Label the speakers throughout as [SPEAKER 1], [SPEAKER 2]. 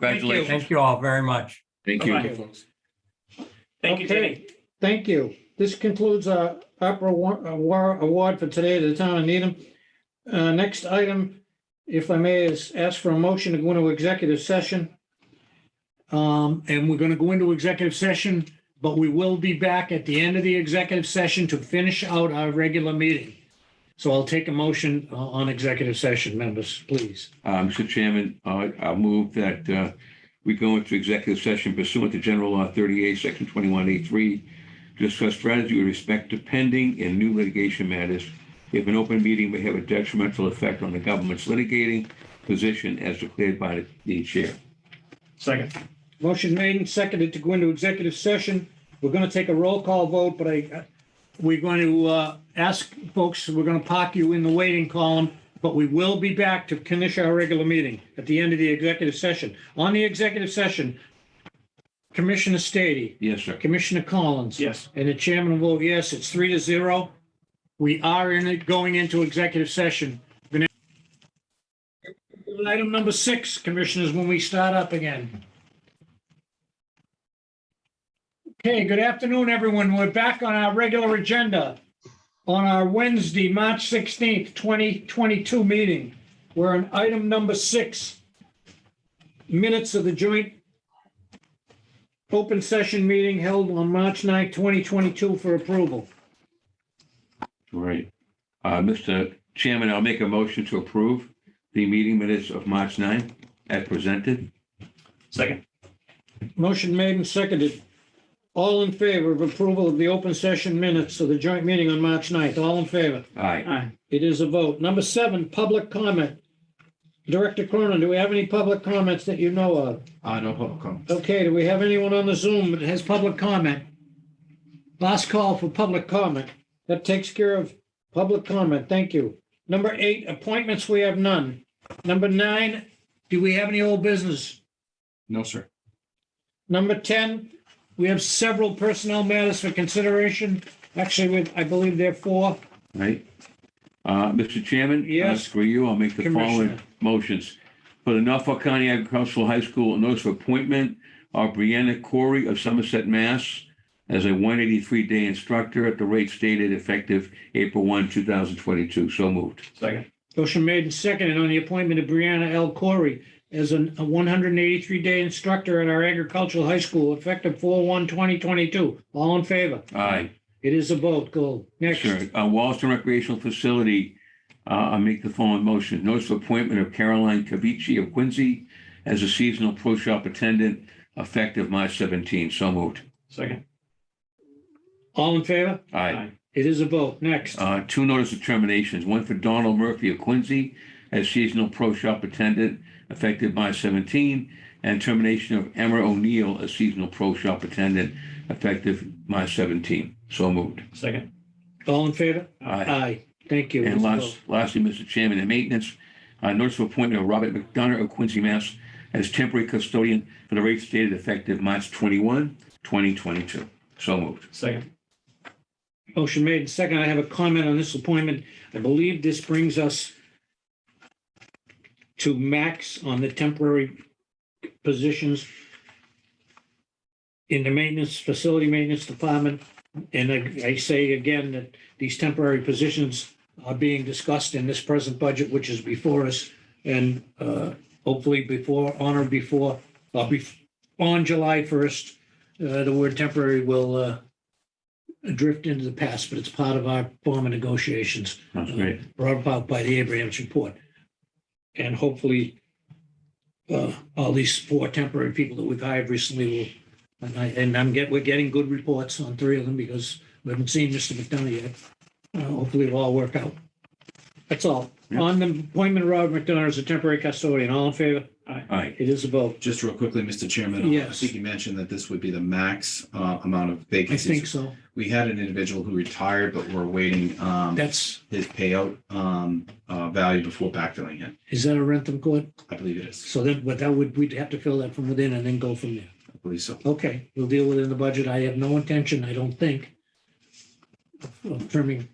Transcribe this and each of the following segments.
[SPEAKER 1] Congratulations.
[SPEAKER 2] Thank you all very much.
[SPEAKER 1] Thank
[SPEAKER 3] Bye-bye.
[SPEAKER 1] you.
[SPEAKER 3] Thank you,
[SPEAKER 4] Okay.
[SPEAKER 3] Jenny.
[SPEAKER 4] Thank you. This concludes our opera wa- uh, war award for today to the town of Needham. Uh, next item, if I may, is ask for a motion to go into executive session. Um, and we're gonna go into executive session, but we will be back at the end of the executive session to finish out our regular meeting. So I'll take a motion uh, on executive session, members, please.
[SPEAKER 1] Uh, Mr. Chairman, uh, I'll move that uh, we go into executive session pursuant to General Law 38, Section 21A3, to discuss strategy with respect to pending and new litigation matters. If an open meeting may have a detrimental effect on the government's litigating position as declared by the chair.
[SPEAKER 3] Second.
[SPEAKER 4] Motion made and seconded to go into executive session. We're going to take a roll call vote, but I, uh, we're going to uh, ask folks, we're going to park you in the waiting column, but we will be back to finish our regular meeting at the end of the executive session. On the executive session, Commissioner Stady,
[SPEAKER 1] Yes, sir.
[SPEAKER 4] Commissioner Collins.
[SPEAKER 3] Yes.
[SPEAKER 4] And the chairman will vote yes. It's three to zero. We are in it, going into executive session. The next- Item number six, commissioners, when we start up again. Okay, good afternoon, everyone. We're back on our regular agenda on our Wednesday, March 16th, 2022 meeting. We're on item number six. Minutes of the joint open session meeting held on March 9th, 2022 for approval.
[SPEAKER 1] Right. Uh, Mr. Chairman, I'll make a motion to approve the meeting minutes of March 9 as presented.
[SPEAKER 3] Second.
[SPEAKER 4] Motion made and seconded. All in favor of approval of the open session minutes of the joint meeting on March 9th. All in favor?
[SPEAKER 1] Aye.
[SPEAKER 3] Aye.
[SPEAKER 4] It is a vote. Number seven, public comment. Director Cronin, do we have any public comments that you know of?
[SPEAKER 5] Uh, no public comment.
[SPEAKER 4] Okay, do we have anyone on the Zoom that has public comment? Last call for public comment. That takes care of public comment. Thank you. Number eight, appointments, we have none. Number nine, do we have any old business?
[SPEAKER 5] No, sir.
[SPEAKER 4] Number 10, we have several personnel matters for consideration. Actually, we- I believe there are four.
[SPEAKER 1] Right. Uh, Mr. Chairman?
[SPEAKER 4] Yes.
[SPEAKER 1] uh, For you, I'll make the
[SPEAKER 4] Commissioner.
[SPEAKER 1] following motions. For the Norfolk County Agricultural High School, a notice of appointment of Brianna Corey of Somerset, Mass. as a one eighty-three day instructor at the rate stated effective April one, two thousand twenty-two. So moved.
[SPEAKER 3] Second.
[SPEAKER 4] Motion made and seconded on the appointment of Brianna L. Corey as an- a 183-day instructor at our agricultural high school effective 4/1/2022. All in favor?
[SPEAKER 1] Aye.
[SPEAKER 4] It is a vote. Go. Next.
[SPEAKER 1] Sure. Uh, Wallaston Recreational Facility, uh, I'll make the following motion. Notice of appointment of Caroline Cavici of Quincy as a seasonal pro shop attendant effective March seventeen. So moved.
[SPEAKER 3] Second.
[SPEAKER 4] All in favor?
[SPEAKER 1] Aye.
[SPEAKER 4] It is a vote. Next.
[SPEAKER 1] Uh, two notice of terminations, one for Donald Murphy of Quincy as seasonal pro shop attendant effective March 17, and termination of Emma O'Neill as seasonal pro shop attendant effective March 17. So moved.
[SPEAKER 3] Second.
[SPEAKER 4] All in favor?
[SPEAKER 1] Aye.
[SPEAKER 4] Aye. Thank you. It
[SPEAKER 1] And
[SPEAKER 4] is a
[SPEAKER 1] last,
[SPEAKER 4] vote.
[SPEAKER 1] lastly, Mr. Chairman, in maintenance, uh, notice of appointment of Robert McDonough of Quincy, Mass. as temporary custodian for the rate stated effective March 21, 2022. So moved.
[SPEAKER 3] Second.
[SPEAKER 4] Motion made and seconded. I have a comment on this appointment. I believe this brings us to max on the temporary positions in the maintenance, facility maintenance department. And I, I say again that these temporary positions are being discussed in this present budget, which is before us. And, uh, hopefully before, on or before, uh, bef- on July first, uh, the word temporary will, uh, drift into the past, but it's part of our former negotiations
[SPEAKER 1] That's great.
[SPEAKER 4] brought about by the Abrams report. And hopefully, uh, all these four temporary people that we've hired recently will, and I, and I'm get, we're getting good reports on three of them because we haven't seen Mr. McDonough yet. Uh, hopefully it'll all work out. That's all.
[SPEAKER 1] Yeah.
[SPEAKER 4] On the appointment of Robert McDonough as a temporary custodian, all in favor?
[SPEAKER 1] All right.
[SPEAKER 4] It is a vote.
[SPEAKER 5] Just real quickly, Mr. Chairman. uh, I
[SPEAKER 4] Yes.
[SPEAKER 5] think you mentioned that this would be the max uh, amount of
[SPEAKER 4] I think
[SPEAKER 5] vacancies.
[SPEAKER 4] so.
[SPEAKER 5] We had an individual who retired, but we're awaiting um,
[SPEAKER 4] That's,
[SPEAKER 5] his payout um, uh, value before backfilling it.
[SPEAKER 4] is that a Rentham court?
[SPEAKER 5] I believe it is.
[SPEAKER 4] So that, but that would, we'd have to fill that from within and then go from there.
[SPEAKER 5] I believe so.
[SPEAKER 4] Okay, we'll deal with it in the budget. I have no intention, I don't think, of- of trimming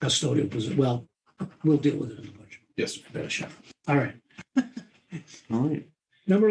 [SPEAKER 4] custodial position. Well, we'll deal with it in the budget.
[SPEAKER 5] Yes. sir.
[SPEAKER 4] Better shut. up. All right.
[SPEAKER 1] All right.
[SPEAKER 4] Number